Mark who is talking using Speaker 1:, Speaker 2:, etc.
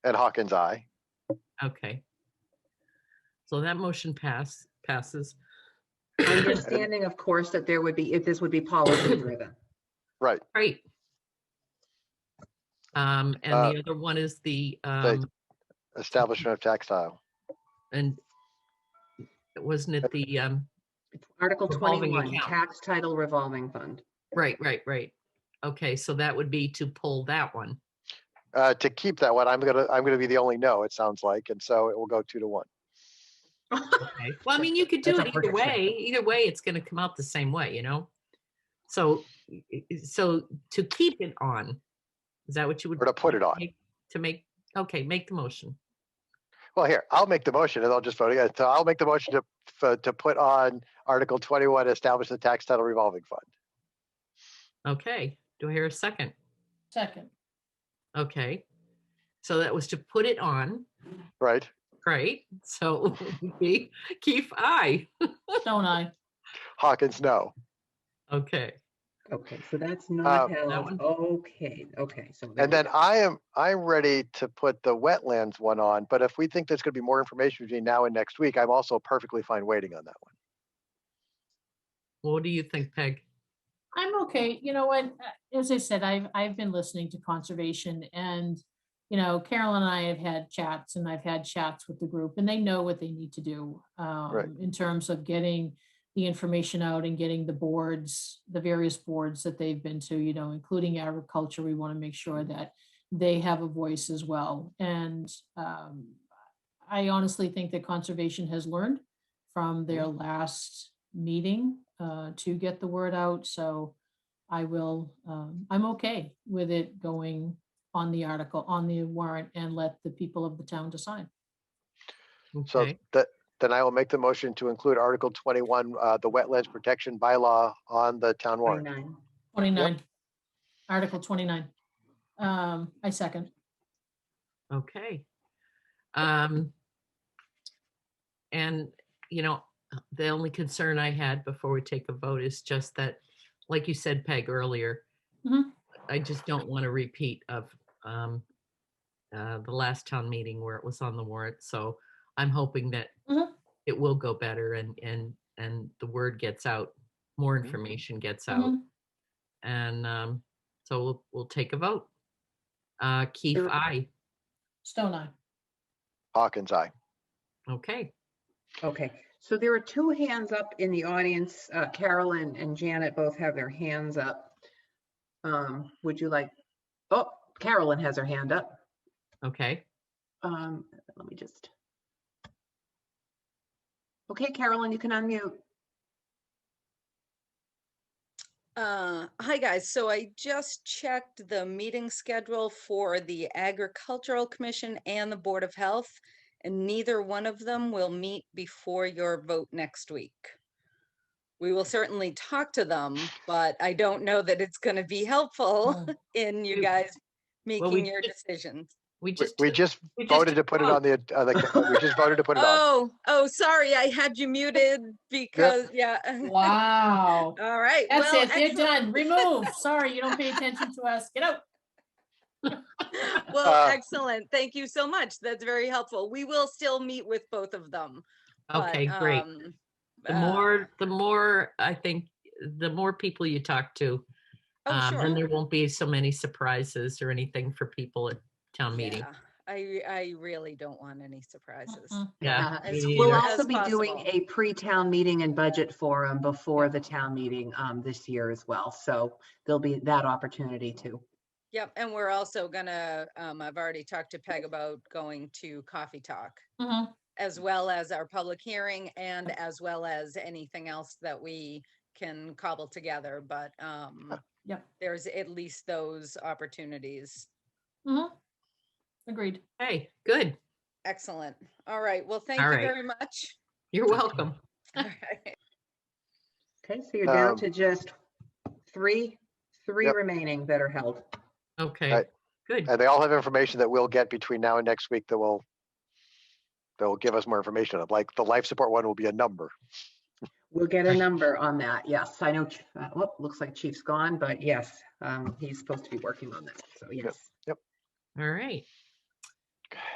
Speaker 1: Ed Hawkins, aye.
Speaker 2: Okay. So that motion pass, passes.
Speaker 3: Understanding, of course, that there would be, if this would be policy driven.
Speaker 1: Right.
Speaker 2: Great. Um, and
Speaker 1: Uh,
Speaker 2: the other one is the, um,
Speaker 1: Establishment of textile.
Speaker 2: and wasn't it the, um,
Speaker 3: It's Article
Speaker 2: Revolving
Speaker 3: 21,
Speaker 2: account.
Speaker 3: tax title revolving fund.
Speaker 2: right, right, right. Okay, so that would be to pull that one.
Speaker 1: Uh, to keep that one, I'm gonna, I'm gonna be the only no, it sounds like, and so it will go two to one.
Speaker 2: Okay. Well, I mean, you could do
Speaker 4: That's
Speaker 2: it
Speaker 4: a
Speaker 2: either
Speaker 4: perfect
Speaker 2: way. Either way, it's gonna come out the same way, you know? So, i- i- so to keep it on, is that what you would?
Speaker 1: Or to put it on.
Speaker 2: make- To make, okay, make the motion.
Speaker 1: Well, here, I'll make the motion and I'll just vote against. So I'll make the motion to, f- uh, to put on Article twenty-one, establish the tax title revolving fund.
Speaker 2: Okay, do I hear a second?
Speaker 4: Second.
Speaker 2: Okay. So that was to put it on,
Speaker 1: Right?
Speaker 2: right? So Keith, I.
Speaker 4: Stone eye.
Speaker 1: Hawkins, no.
Speaker 2: Okay,
Speaker 3: Okay, so that's not
Speaker 1: that
Speaker 2: one.
Speaker 3: held. Okay, okay, so. there
Speaker 1: Uh, And
Speaker 3: we
Speaker 1: then
Speaker 3: go.
Speaker 1: I am, I'm ready to put the wetlands one on, but if we think there's gonna be more information between now and next week, I'm also perfectly fine waiting on that one.
Speaker 2: what do you think, Peg?
Speaker 4: I'm okay. You know what? uh, As I said, I've, I've been listening to conservation and, you know, Carol and I have had chats and I've had chats with the group and they know what they need to do. um, In terms of getting the information out and getting the boards, the various boards that they've been to, you know, including agriculture, we want to make sure that they have a voice as well. And um, I honestly think that conservation has learned from their last meeting uh, to get the word out. So I will, um, I'm okay with it going on the article, on the warrant and let the people of the town decide.
Speaker 1: So
Speaker 2: Okay,
Speaker 1: that, then I will make the motion to include Article twenty-one, uh, the wetlands protection bylaw on the town warrant.
Speaker 3: 29.
Speaker 4: 29, Article 29. Um, I second.
Speaker 2: okay. Um, and, you know, the only concern I had before we take a vote is just that, like you said, Peg, earlier,
Speaker 4: Mhm.
Speaker 2: I just don't want a repeat of, um, uh, the last town meeting where it was on the warrant, so I'm hoping that
Speaker 4: Mhm.
Speaker 2: it will go better and, and, and the word gets out, more information gets out.
Speaker 4: Mhm.
Speaker 2: And um, so we'll, we'll take a vote. Uh, Keith,
Speaker 3: Sure.
Speaker 2: aye.
Speaker 4: Stone Eye.
Speaker 1: Hawkins, aye.
Speaker 2: Okay.
Speaker 3: Okay, so there are two hands up in the audience. Uh, Carolyn and Janet both have their hands up. Um, Would you like, oh, Carolyn has her hand up.
Speaker 2: Okay.
Speaker 3: Um, Let me just. Okay, Carolyn, you can unmute.
Speaker 5: Uh, hi guys, so I just checked the meeting schedule for the Agricultural Commission and the Board of Health. And neither one of them will meet before your vote next week. We will certainly talk to them, but I don't know that it's gonna be helpful
Speaker 4: Mm.
Speaker 5: in you
Speaker 2: We-
Speaker 5: guys
Speaker 2: we
Speaker 5: making your
Speaker 2: just-
Speaker 5: decisions.
Speaker 2: We
Speaker 1: We-
Speaker 2: just.
Speaker 1: We
Speaker 2: took-
Speaker 1: just
Speaker 2: we just Oh.
Speaker 1: voted to
Speaker 2: took
Speaker 1: put it
Speaker 2: vote.
Speaker 1: on the, uh, the- we just voted to put it on.
Speaker 5: Oh, oh, sorry, I had you muted because, yeah.
Speaker 4: Wow.
Speaker 5: All right.
Speaker 4: That's
Speaker 5: well,
Speaker 4: it. They're
Speaker 5: excellent.
Speaker 4: done. Remove. Sorry, you don't pay attention to us. Get out.
Speaker 5: Well,
Speaker 1: Uh,
Speaker 5: excellent. Thank you so much. That's very helpful. We will still meet with both of them. but,
Speaker 2: Okay, great.
Speaker 5: um,
Speaker 2: The
Speaker 5: uh,
Speaker 2: more, the more, I think, the more people you talk to,
Speaker 5: Oh,
Speaker 2: um, then
Speaker 5: sure.
Speaker 2: there won't be so many surprises or anything for people at town meeting.
Speaker 5: Yeah, I, I really don't want any surprises.
Speaker 4: Mhm.
Speaker 2: Yeah.
Speaker 3: Uh,
Speaker 5: me
Speaker 2: me
Speaker 3: We'll
Speaker 2: neither.
Speaker 5: all-
Speaker 3: also
Speaker 5: As
Speaker 3: be doing
Speaker 5: possible.
Speaker 3: a pre-town meeting and budget forum before the town meeting um, this year as well. So there'll be that opportunity too.
Speaker 5: Yep, and we're also gonna, um, I've already talked to Peg about going to Coffee Talk
Speaker 4: Mhm.
Speaker 5: as well as our public hearing and as well as anything else that we can cobble together, but, um,
Speaker 4: Yep.
Speaker 5: there's at least those opportunities
Speaker 4: Mhm. Agreed.
Speaker 2: Hey, good.
Speaker 5: Excellent. All right. Well, thank
Speaker 2: All
Speaker 5: you
Speaker 2: right.
Speaker 5: very much.
Speaker 2: You're welcome.
Speaker 5: All right.
Speaker 3: Okay, so you're down
Speaker 1: Um,
Speaker 3: to just three, three
Speaker 1: Yep.
Speaker 3: remaining that are held.
Speaker 2: Okay,
Speaker 1: Right.
Speaker 2: good.
Speaker 1: And they all have information that we'll get between now and next week that will, that will give us more information. on. Like the life support one will be a number.
Speaker 3: We'll get a number on that. Yes, I know, Ch- uh, whoop, looks like Chief's gone, but yes, um, he's supposed to be working on that. So yes.
Speaker 2: All right.